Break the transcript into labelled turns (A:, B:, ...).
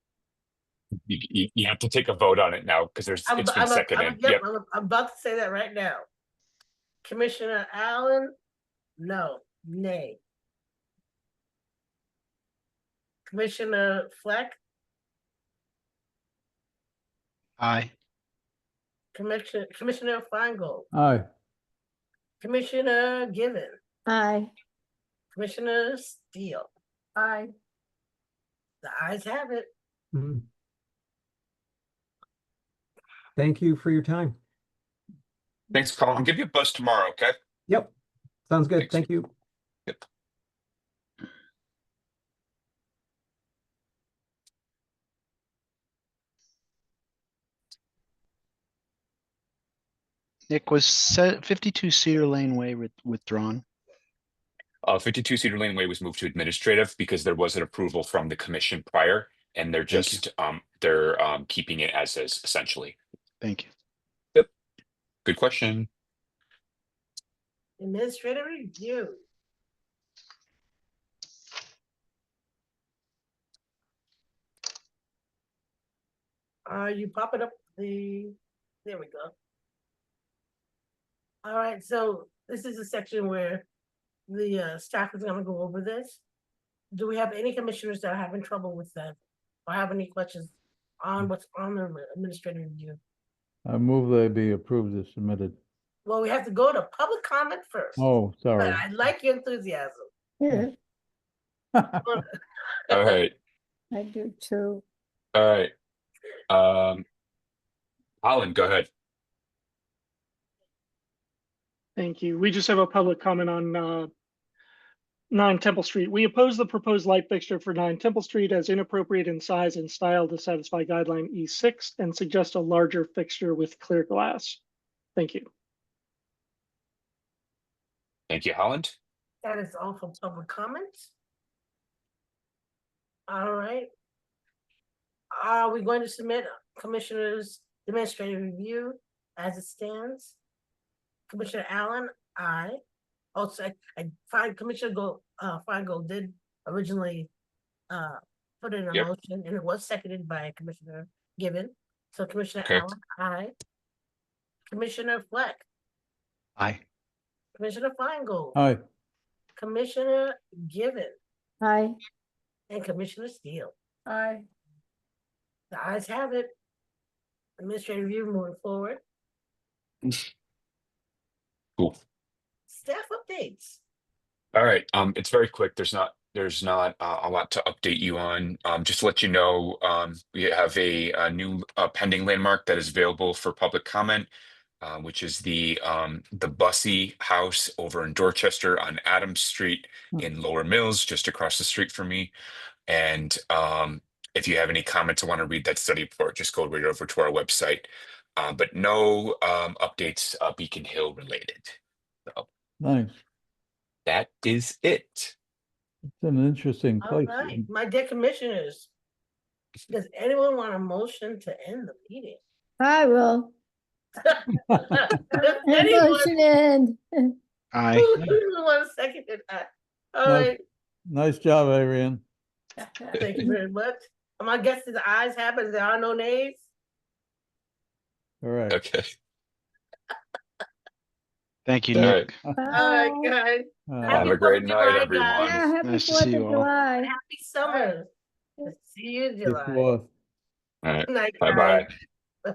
A: you, you, you have to take a vote on it now because there's,
B: I'm,
A: it's
B: I'm,
A: been
B: I'm, I'm,
A: seconded.
B: yep,
A: Yep,
B: I'm, I'm about to say that right now. Commissioner Allen, no, nay. Commissioner Fleck,
C: Aye.
B: Commissioner, Commissioner Feingold,
D: Aye.
B: Commissioner Given,
E: Aye.
B: Commissioner Steele.
E: Aye.
B: The eyes have it.
D: Mhm. Thank you for your time.
A: thanks, Colin. I'll give you a buzz tomorrow, okay?
D: Yep, sounds good.
A: Thanks.
D: Thank you.
C: Nick was set fifty-two Cedar Lane Way with- withdrawn.
A: Uh, fifty-two Cedar Lane Way was moved to administrative because there was an approval from the commission prior. And they're
C: Thank you.
A: just, um, they're, um, keeping it as is essentially.
C: Thank you.
A: Good question.
B: Administrative review. Are Uh, you popping up the, there we go. All right, so this is a section where the uh, staff is gonna go over this. Do we have any commissioners that are having trouble with that? Or have any questions
F: Mm.
B: on what's on the administrative review?
F: I move they be approved as submitted.
B: Well, we have to go to public comment first.
F: Oh,
B: But
F: sorry.
B: I like your enthusiasm.
A: All right,
E: I do too.
A: all right. Um, Colin, go ahead.
G: Thank you. We just have a public comment on uh, 9 Temple Street. We oppose the proposed light fixture for 9 Temple Street as inappropriate in size and style to satisfy guideline E6 and suggest a larger fixture with clear glass. Thank you.
A: Thank you, Holland.
B: That is all for public comments. All right. Are we going to submit Commissioner's administrative review as it stands? Commissioner Allen, aye. Also, I- I find Commissioner Go, uh, Feingold did originally uh, put in a
A: Yep.
B: motion and it was seconded by Commissioner Given. So Commissioner
A: Correct.
B: Allen, aye. Commissioner Fleck,
C: Aye.
B: Commissioner Feingold.
F: Aye,
B: Commissioner Given
E: Aye.
B: and Commissioner Steele.
E: Aye.
B: The ayes have it. Administrative review moving forward.
A: Cool.
B: Staff updates.
A: All right, um, it's very quick. There's not, there's not uh, a lot to update you on. Um, just to let you know, um, we have a, uh new uh, pending landmark that is available for public comment, uh, which is the um, the Bussy House over in Dorchester on Adams Street
F: Hmm.
A: in Lower Mills, just across the street from me. And um, if you have any comments or want to read that study report, just go right over to our website. Uh, but no um, updates uh, Beacon Hill related.
F: nice.
A: That is it.
F: It's an interesting
B: All
F: place.
B: right, my dear commissioners. Does anyone want a motion to end the meeting?
E: I will.
B: Anyone?
E: Motion end.
C: Aye.
B: Who doesn't want to second it? Uh, All
F: No.
B: right,
F: Nice job, Arian.
B: thank you very much. My guess is the ayes have it. There are no nays.
F: All right.
A: Okay.
C: Thank you,
A: All
C: Nick.
A: right.
B: All right,
E: Bye.
B: guys.
F: Uh,
A: Have a
B: Happy
A: great
B: Fourth
A: night,
B: of July, guys.
A: everyone.
E: Yeah, happy
C: Nice to
E: Fourth of
C: see you all.
E: July.
B: Happy summer. See you in
F: good
B: July.
F: fourth.
B: Good night,
A: Bye
B: guys.
A: bye.